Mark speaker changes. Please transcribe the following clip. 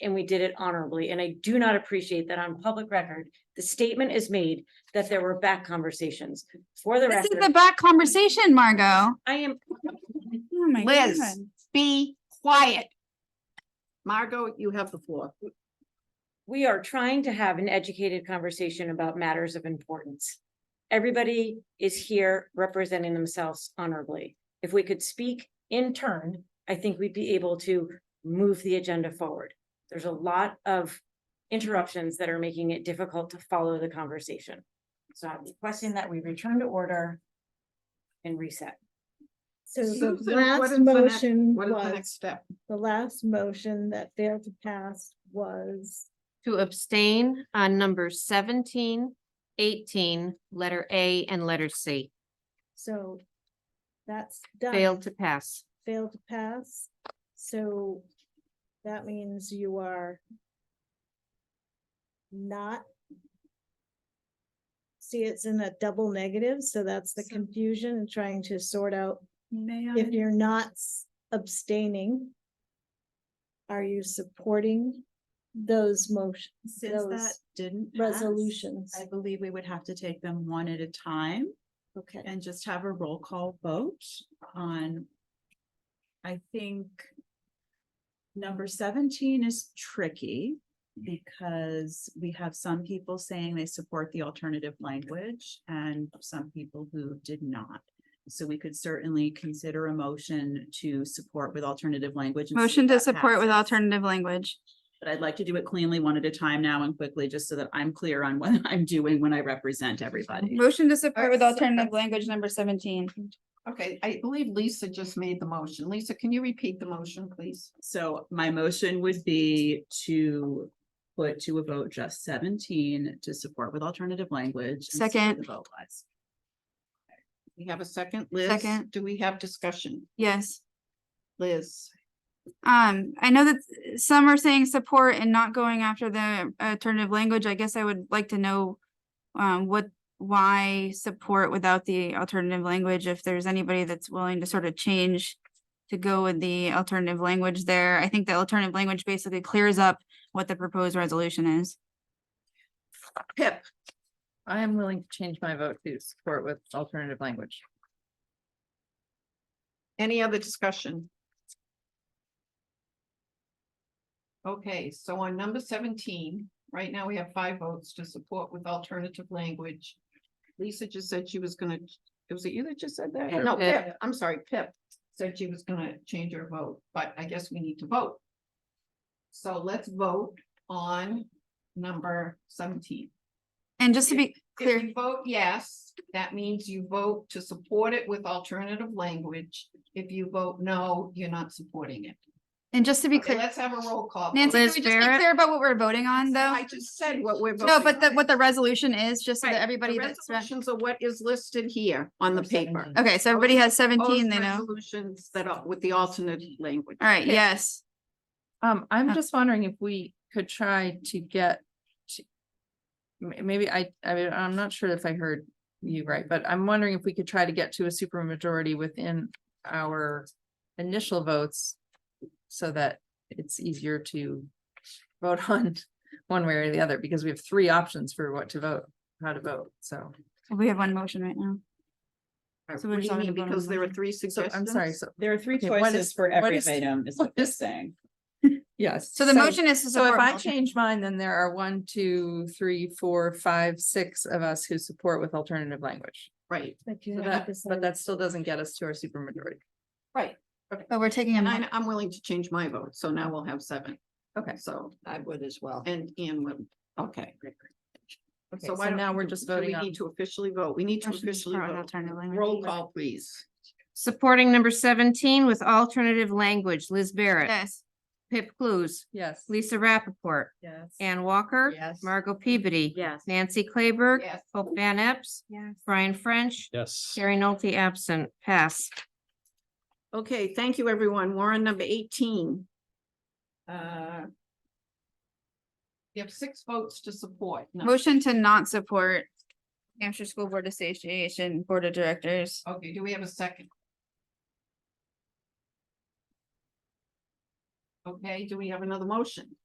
Speaker 1: and we did it honorably, and I do not appreciate that on public record. The statement is made that there were back conversations. For the
Speaker 2: This is the
Speaker 1: record,
Speaker 2: back conversation, Margot.
Speaker 1: I am,
Speaker 2: Oh my
Speaker 3: Liz.
Speaker 2: God.
Speaker 3: Be quiet. Margot, you have the floor.
Speaker 1: we are trying to have an educated conversation about matters of importance. Everybody is here representing themselves honorably. If we could speak in turn, I think we'd be able to move the agenda forward. There's a lot of interruptions that are making it difficult to follow the conversation. So I'm requesting that we return to order and reset.
Speaker 4: So the
Speaker 3: Susan, what is
Speaker 4: last
Speaker 3: the next-
Speaker 4: motion
Speaker 3: What is the
Speaker 4: was,
Speaker 3: next step?
Speaker 4: the last motion that failed to pass was,
Speaker 5: to abstain on numbers 17, 18, letter A and letter C.
Speaker 4: so that's done.
Speaker 5: Failed to pass.
Speaker 4: Failed to pass, so that means you are not see, it's in a double negative, so that's the confusion and trying to sort out
Speaker 2: May I?
Speaker 4: if you're not s- abstaining, are you supporting those motions,
Speaker 6: Since that
Speaker 4: those
Speaker 6: didn't. pass,
Speaker 4: resolutions?
Speaker 6: I believe we would have to take them one at a time
Speaker 4: Okay.
Speaker 6: and just have a roll call vote on. I think. Number seventeen is tricky because we have some people saying they support the alternative language and some people who did not. So we could certainly consider a motion to support with alternative language. and see if
Speaker 2: Motion to
Speaker 6: that
Speaker 2: support with
Speaker 6: passes.
Speaker 2: alternative language.
Speaker 6: But I'd like to do it cleanly, one at a time now and quickly, just so that I'm clear on what I'm doing when I represent everybody.
Speaker 2: Motion to support with
Speaker 3: so-
Speaker 2: alternative language number seventeen.
Speaker 3: Okay, I believe Lisa just made the motion. Lisa, can you repeat the motion, please?
Speaker 6: So my motion would be to put to a vote just seventeen to support with alternative language. and see what
Speaker 2: Second.
Speaker 6: The vote was.
Speaker 3: We have a second, Liz?
Speaker 2: Second.
Speaker 3: Do we have discussion?
Speaker 2: Yes.
Speaker 3: Liz?
Speaker 2: Um, I know that some are saying support and not going after the alternative language. I guess I would like to know um, what, why support without the alternative language? If there's anybody that's willing to sort of change to go with the alternative language there. I think the alternative language basically clears up what the proposed resolution is.
Speaker 3: Pip?
Speaker 7: I am willing to change my vote to support with alternative language.
Speaker 3: Any other discussion? Okay, so on number seventeen, right now we have five votes to support with alternative language. Lisa just said she was gonna, it was it you that just said that?
Speaker 5: Pip.
Speaker 3: No, Pip, I'm sorry, Pip said she was gonna change her vote, but I guess we need to vote. So let's vote on number seventeen.
Speaker 2: And just to be clear.
Speaker 3: If you vote yes, that means you vote to support it with alternative language. If you vote no, you're not supporting it.
Speaker 2: And just to be
Speaker 3: Okay,
Speaker 2: clear,
Speaker 3: let's have a roll call.
Speaker 2: Nancy, can
Speaker 5: Liz
Speaker 2: we just be
Speaker 5: Barrett?
Speaker 2: clear about what we're voting on, though?
Speaker 3: I just said what we're.
Speaker 2: No,
Speaker 3: voting
Speaker 2: but the,
Speaker 3: on.
Speaker 2: what the resolution is, just so
Speaker 3: Right,
Speaker 2: that
Speaker 3: the
Speaker 2: everybody that's,
Speaker 3: Resolutions are what is listed here on the
Speaker 7: Or
Speaker 3: paper.
Speaker 7: 17.
Speaker 2: okay, so everybody has seventeen,
Speaker 3: Those
Speaker 2: they know.
Speaker 3: Resolutions that are with the alternate language.
Speaker 2: All right, yes.
Speaker 7: Um, I'm
Speaker 2: Uh,
Speaker 7: just wondering if we could try to get. to- m- Maybe I, I mean, I'm not sure if I heard you right, but I'm wondering if we could try to get to a supermajority within our initial votes. So that it's easier to vote on one way or the other, because we have three options for what to vote, how to vote, so.
Speaker 2: We have one motion right now. So we're
Speaker 3: What do
Speaker 2: just
Speaker 3: you
Speaker 2: not
Speaker 3: mean?
Speaker 2: gonna vote on
Speaker 3: Because there are
Speaker 2: motion.
Speaker 3: three
Speaker 7: So I'm
Speaker 3: suggestions.
Speaker 7: sorry, so,
Speaker 6: There are three
Speaker 7: Okay, what is-
Speaker 6: choices for
Speaker 7: what
Speaker 6: every
Speaker 7: is-
Speaker 6: item is
Speaker 7: what
Speaker 6: what they're
Speaker 7: is-
Speaker 6: saying.
Speaker 7: yes.
Speaker 2: So the motion is to
Speaker 7: So if
Speaker 2: support.
Speaker 7: I
Speaker 2: multi-
Speaker 7: change mine, then there are one, two, three, four, five, six of us who support with alternative language.
Speaker 3: Right,
Speaker 4: But
Speaker 7: So
Speaker 4: you
Speaker 7: that-
Speaker 4: haven't
Speaker 7: But
Speaker 4: decided.
Speaker 7: that still doesn't get us to our supermajority.
Speaker 3: right.
Speaker 2: But we're taking a,
Speaker 3: And
Speaker 2: mo-
Speaker 3: I, I'm willing to change my vote, so now we'll have seven.
Speaker 7: Okay.
Speaker 3: So. I would as well. And Ian would, okay.
Speaker 7: Okay,
Speaker 3: why
Speaker 7: so
Speaker 3: don't
Speaker 7: now
Speaker 3: we
Speaker 7: we're
Speaker 3: do-
Speaker 7: just
Speaker 3: do we
Speaker 7: voting on-
Speaker 3: Need to officially vote. We need to
Speaker 2: Motion to
Speaker 3: officially
Speaker 2: support
Speaker 3: vote.
Speaker 2: alternative language.
Speaker 3: Roll call, please.
Speaker 5: Supporting number seventeen with alternative language, Liz Barrett,
Speaker 2: yes,
Speaker 5: Pip Clues,
Speaker 7: Yes.
Speaker 5: Lisa Rappaport,
Speaker 7: Yes.
Speaker 5: Ann Walker,
Speaker 3: Yes.
Speaker 5: Margot Peabody.
Speaker 1: Yes.
Speaker 5: Nancy Claiberg,
Speaker 3: Yes.
Speaker 5: Hope Van Epps, Brian French,
Speaker 8: Yes.
Speaker 5: Carrie Nolte absent, pass.
Speaker 3: Okay, thank you, everyone. We're on number eighteen. Uh, You have six votes to support. No.
Speaker 2: motion to not support New Hampshire School Board Association Board of Directors.
Speaker 3: Okay, do we have a second? Okay, do we have another motion?